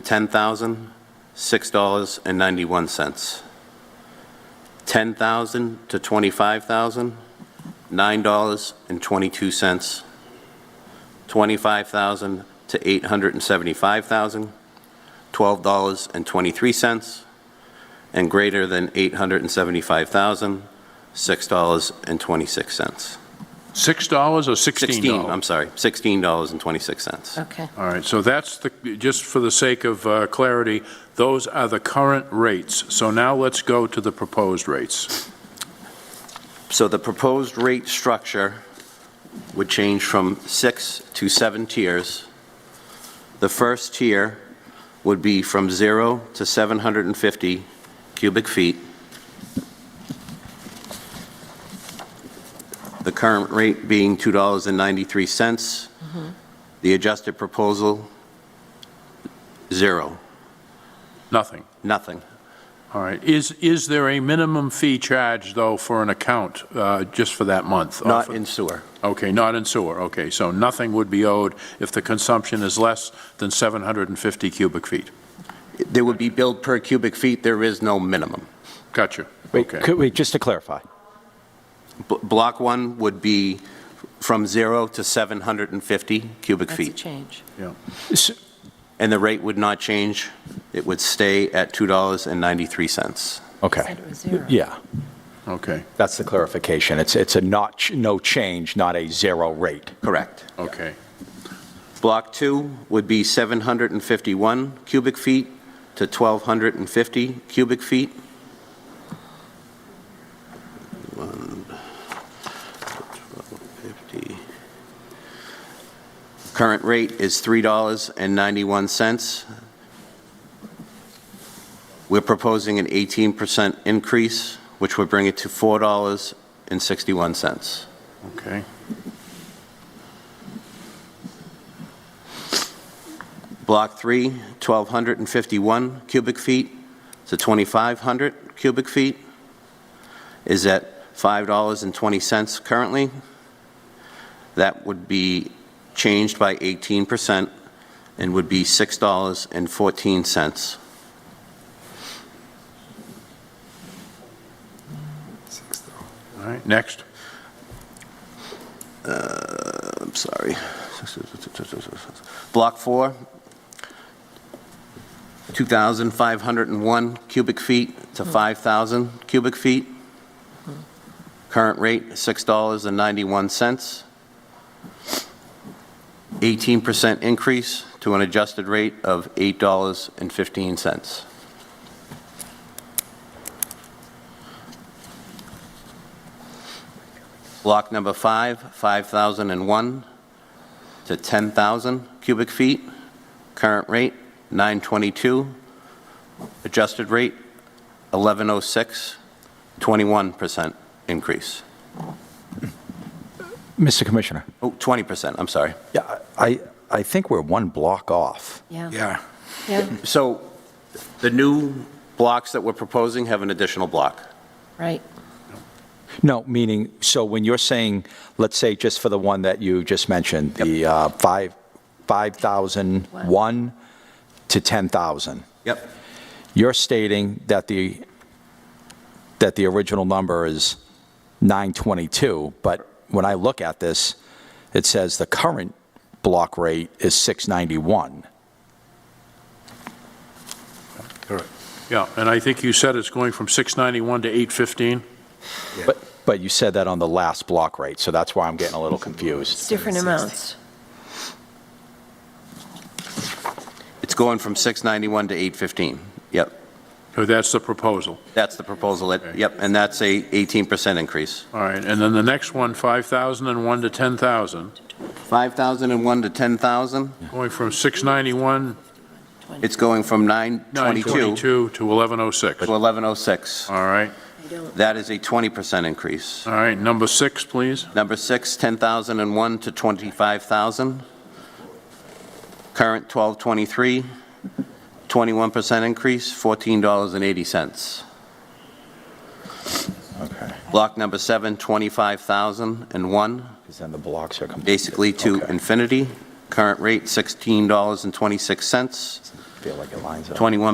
$10,006.91. 10000 to 25000 $9.22. 25000 to 875000 $12.23. And greater than 875000 $6.26. $6 or 16, $16? I'm sorry, $16.26. Okay. All right, so that's the, just for the sake of uh, clarity, those are the current rates. So now let's go to the proposed rates. So the proposed rate structure would change from six to seven tiers. The first tier would be from zero to 750 cubic feet. The current rate being $2.93. The adjusted proposal, zero, Nothing. nothing. All right. Is, is there a minimum fee charged, though, for an account, uh, just for that month? Not in sewer. Okay, not in sewer. Okay, so nothing would be owed if the consumption is less than 750 cubic feet. There would be billed per cubic feet, there is no minimum. Gotcha. Wait, Okay. could- wait, just to clarify. B- Block one would be from zero to 750 cubic That's a feet. change. Yeah. S- And the rate would not change. It would stay at $2.93. Okay, Said it was zero. yeah, Okay, that's the clarification. It's, it's a not, ch- no change, not a zero rate. Correct. okay. Block two would be 751 cubic feet to 1,250 cubic feet. One, 1,250. Current rate is $3.91. We're proposing an 18% increase, which would bring it to $4.61. Okay. Block 3, 1,251 cubic feet to 2,500 cubic feet is at $5.20 currently. That would be changed by 18% and would be $6.14. All right, next. I'm sorry. Block 4, 2,501 cubic feet to 5,000 cubic feet. Current rate, $6.91. 18% increase to an adjusted rate of $8.15. Block number five, 5,001 to 10,000 cubic feet. Current rate, 922. Adjusted rate, 1106, 21% increase. Mr. Commissioner? Oh, 20%, I'm sorry. Yeah, I, I think we're one block off. Yeah. Yeah. Yeah, So the new blocks that we're proposing have an additional block. right. No, meaning, so when you're saying, let's say just for the one that you just mentioned, the uh, five, 5,001 to 10,000, Yep. you're stating that the, that the original number is 922, but when I look at this, it says the current block rate is 691. Yeah, and I think you said it's going from 691 to 815? But, but you said that on the last block rate, so that's why I'm getting a little confused. It's different amounts. It's going from 691 to 815. Yep. Oh, that's the proposal. That's the proposal. It- Yep, and that's a 18% increase. All right, and then the next one, 5,001 to 10,000, 5,001 to 10,000. going from 691, It's going from 922 to 922 to 1106. All 1106. right, That is a 20% increase. all right, number six, please. Number six, 10,001 to 25,000. Current 1223, 21% increase, $14.80. Okay, Block number seven, 25,001, because then the blocks are completely. basically to Okay. infinity. Current rate, $16.26. feel like it lines up. 21